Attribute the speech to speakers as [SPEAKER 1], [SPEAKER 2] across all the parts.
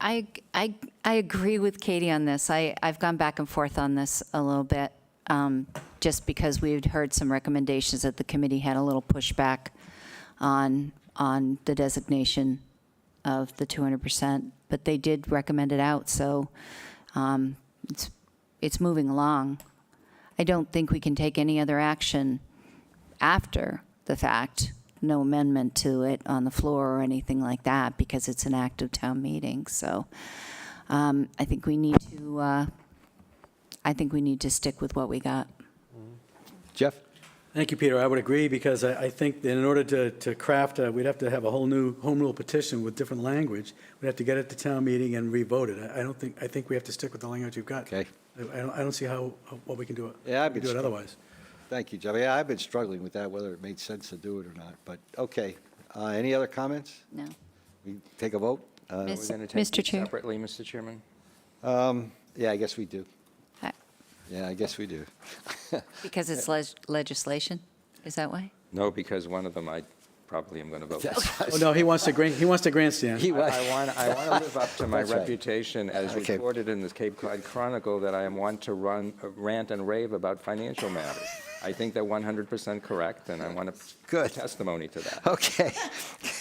[SPEAKER 1] I, I, I agree with Katie on this. I, I've gone back and forth on this a little bit, um, just because we had heard some recommendations that the committee had a little pushback on, on the designation of the 200%, but they did recommend it out, so um, it's, it's moving along. I don't think we can take any other action after the fact, no amendment to it on the floor or anything like that, because it's an act of town meeting, so um, I think we need to, uh, I think we need to stick with what we got.
[SPEAKER 2] Jeff?
[SPEAKER 3] Thank you, Peter. I would agree, because I, I think that in order to, to craft, uh, we'd have to have a whole new home rule petition with different language. We'd have to get it to town meeting and re-vote it. I, I don't think, I think we have to stick with the language you've got.
[SPEAKER 2] Okay.
[SPEAKER 3] I, I don't, I don't see how, how- what we can do it.
[SPEAKER 2] Yeah, I'd be
[SPEAKER 3] Do it
[SPEAKER 2] str-
[SPEAKER 3] otherwise.
[SPEAKER 2] Thank you, Jeff. Yeah, I've been struggling with that, whether it made sense to do it or not, but, okay. Uh, Any other comments?
[SPEAKER 1] No.
[SPEAKER 2] We take a vote? Uh,
[SPEAKER 1] Miss-
[SPEAKER 4] We're going to
[SPEAKER 1] Mr.
[SPEAKER 4] take
[SPEAKER 1] Chair.
[SPEAKER 4] them separately, Mr. Chairman.
[SPEAKER 2] Yeah, I guess we do.
[SPEAKER 1] I-
[SPEAKER 2] Yeah, I guess we do.
[SPEAKER 1] Because it's leg- legislation? Is that why?
[SPEAKER 4] No, because one of them I probably am going to vote.
[SPEAKER 2] That's-
[SPEAKER 3] Oh, no, he wants to gran, he wants to grandstand.
[SPEAKER 2] He
[SPEAKER 4] I
[SPEAKER 2] was,
[SPEAKER 4] want, I want to live up to my
[SPEAKER 2] That's right.
[SPEAKER 4] reputation as
[SPEAKER 2] Okay.
[SPEAKER 4] reported in the Cape Cod Chronicle that I am one to run, uh, rant and rave about financial matters. I think they're 100% correct, and I want to
[SPEAKER 2] Good.
[SPEAKER 4] testimony to that.
[SPEAKER 2] okay.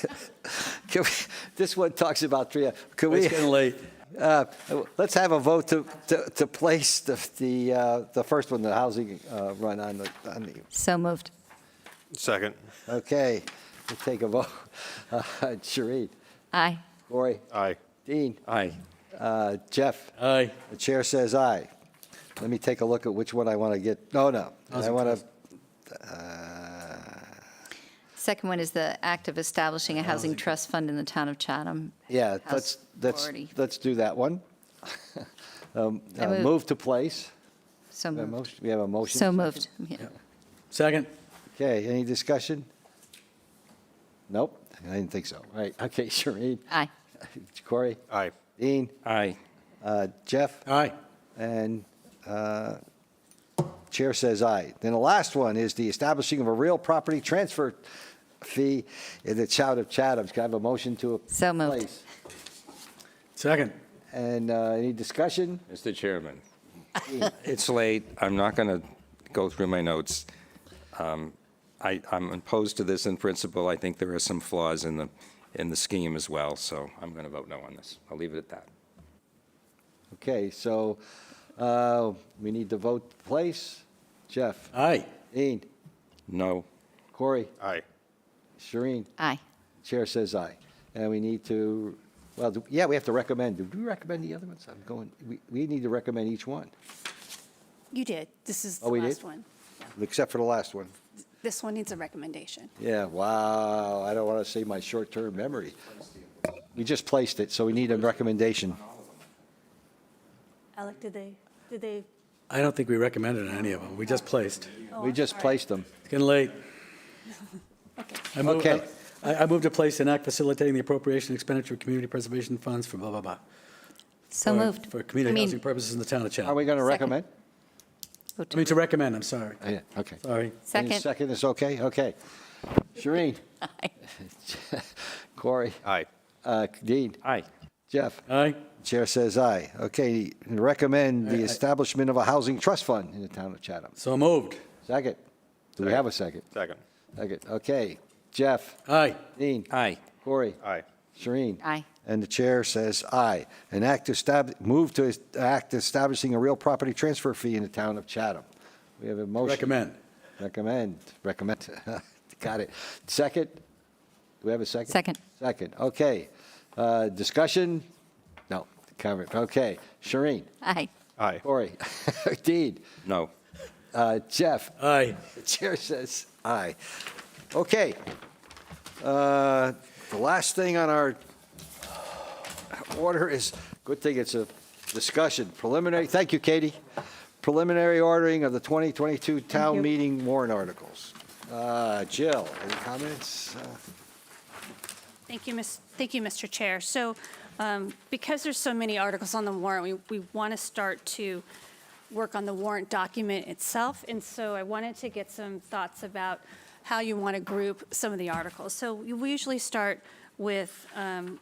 [SPEAKER 2] Can we- This one talks about three, could we?
[SPEAKER 3] It's getting late.
[SPEAKER 2] Uh, Let's have a vote to, to, to place the, the, uh, the first one, the housing uh, run on the, on the,
[SPEAKER 1] So moved.
[SPEAKER 5] Second.
[SPEAKER 2] okay, we'll take a vote. Uh, Sheree,
[SPEAKER 1] Aye.
[SPEAKER 2] Corey,
[SPEAKER 5] Aye.
[SPEAKER 2] Dean,
[SPEAKER 4] Aye.
[SPEAKER 2] uh, Jeff,
[SPEAKER 3] Aye.
[SPEAKER 2] the chair says aye. Let me take a look at which one I want to get, no, no, I uh,
[SPEAKER 3] Housing
[SPEAKER 2] want
[SPEAKER 3] trust.
[SPEAKER 2] to,
[SPEAKER 1] Second one is the act of establishing a housing trust fund in the town of Chatham.
[SPEAKER 2] yeah,
[SPEAKER 1] House
[SPEAKER 2] let's, let's,
[SPEAKER 1] Authority.
[SPEAKER 2] let's do that one. Um,
[SPEAKER 1] I
[SPEAKER 2] uh,
[SPEAKER 1] move-
[SPEAKER 2] Move to place.
[SPEAKER 1] So
[SPEAKER 2] We have a
[SPEAKER 1] moved.
[SPEAKER 2] motion- we have a motion.
[SPEAKER 1] So moved. Yeah.
[SPEAKER 3] Second?
[SPEAKER 2] Okay, any discussion? Nope, I didn't think so. All right, okay, Shereen,
[SPEAKER 1] Aye.
[SPEAKER 2] Corey,
[SPEAKER 5] Aye.
[SPEAKER 2] Dean,
[SPEAKER 4] Aye.
[SPEAKER 2] uh, Jeff,
[SPEAKER 3] Aye.
[SPEAKER 2] and uh, Chair says aye. Then the last one is the establishing of a real property transfer fee in the town of Chatham. Can I have a motion to place?
[SPEAKER 1] So moved.
[SPEAKER 3] Second?
[SPEAKER 2] And uh, any discussion?
[SPEAKER 4] Mr. Chairman, it's late. I'm not going to go through my notes. Um, I, I'm opposed to this in principle. I think there are some flaws in the, in the scheme as well, so I'm going to vote no on this. I'll leave it at that.
[SPEAKER 2] Okay, so uh, we need to vote to place. Jeff,
[SPEAKER 3] Aye.
[SPEAKER 2] Dean,
[SPEAKER 4] No.
[SPEAKER 2] Corey,
[SPEAKER 5] Aye.
[SPEAKER 2] Shereen.
[SPEAKER 1] Aye.
[SPEAKER 2] Chair says aye. And we need to, well, do- yeah, we have to recommend. Do we recommend the other ones? I'm going, we, we need to recommend each one,
[SPEAKER 6] You did. This is
[SPEAKER 2] Oh,
[SPEAKER 6] the
[SPEAKER 2] we did?
[SPEAKER 6] last one.
[SPEAKER 2] except for the last one.
[SPEAKER 6] This one needs a recommendation.
[SPEAKER 2] Yeah, wow, I don't want to say my short-term memory. We just placed it, so we need a recommendation.
[SPEAKER 6] Alec, did they, did they?
[SPEAKER 3] I don't think we recommended any of them. We just placed.
[SPEAKER 1] Oh,
[SPEAKER 2] We just placed them.
[SPEAKER 3] It's getting late. I move-
[SPEAKER 2] Okay.
[SPEAKER 3] I, I moved to place an act facilitating the appropriation expenditure of community preservation funds for blah, blah, blah.
[SPEAKER 1] So
[SPEAKER 3] for-
[SPEAKER 1] moved.
[SPEAKER 3] For
[SPEAKER 1] I
[SPEAKER 3] community
[SPEAKER 1] mean,
[SPEAKER 3] housing purposes in the town of
[SPEAKER 2] Are
[SPEAKER 3] Chatham.
[SPEAKER 2] we going to
[SPEAKER 1] Second.
[SPEAKER 2] recommend?
[SPEAKER 1] vote
[SPEAKER 3] I
[SPEAKER 1] to-
[SPEAKER 3] mean, to recommend, I'm sorry.
[SPEAKER 2] Oh, Yeah, okay. Any
[SPEAKER 3] Sorry.
[SPEAKER 1] Second.
[SPEAKER 2] Second is okay, okay. Shereen? Corey?
[SPEAKER 5] Aye.
[SPEAKER 2] Uh, Dean?
[SPEAKER 4] Aye.
[SPEAKER 2] Jeff?
[SPEAKER 3] Aye.
[SPEAKER 2] Chair says aye. Okay, recommend the establishment of a housing trust fund in the town of Chatham.
[SPEAKER 3] So moved.
[SPEAKER 2] Second. Do we have a second?
[SPEAKER 5] Second.
[SPEAKER 2] Second, okay. Jeff,
[SPEAKER 3] Aye.
[SPEAKER 2] Dean,
[SPEAKER 4] Aye.
[SPEAKER 2] Corey,
[SPEAKER 5] Aye.
[SPEAKER 2] Shereen.
[SPEAKER 1] Aye.
[SPEAKER 2] And the chair says aye. An act to stab, move to est- act establishing a real property transfer fee in the town of Chatham. We have a motion.
[SPEAKER 3] Recommend.
[SPEAKER 2] Recommend, recommend. Got it. Second? Do we have a second?
[SPEAKER 1] Second.
[SPEAKER 2] Second, okay. Uh, Discussion? No, comment, okay. Shereen,
[SPEAKER 1] Aye.
[SPEAKER 5] Aye.
[SPEAKER 2] Corey, Dean,
[SPEAKER 4] No.
[SPEAKER 2] uh, Jeff,
[SPEAKER 3] Aye.
[SPEAKER 2] the chair says aye. Okay. Uh, The last thing on our order is, good thing it's a discussion, preliminary, thank you, Katie. Preliminary ordering of the 2022 town meeting warrant articles. Uh, Jill, any comments? Uh,
[SPEAKER 6] Thank you, Miss, thank you, Mr. Chair. So um, because there's so many articles on the warrant, we, we want to start to work on the warrant document itself. And so I wanted to get some thoughts about how you want to group some of the articles. So we usually start with um,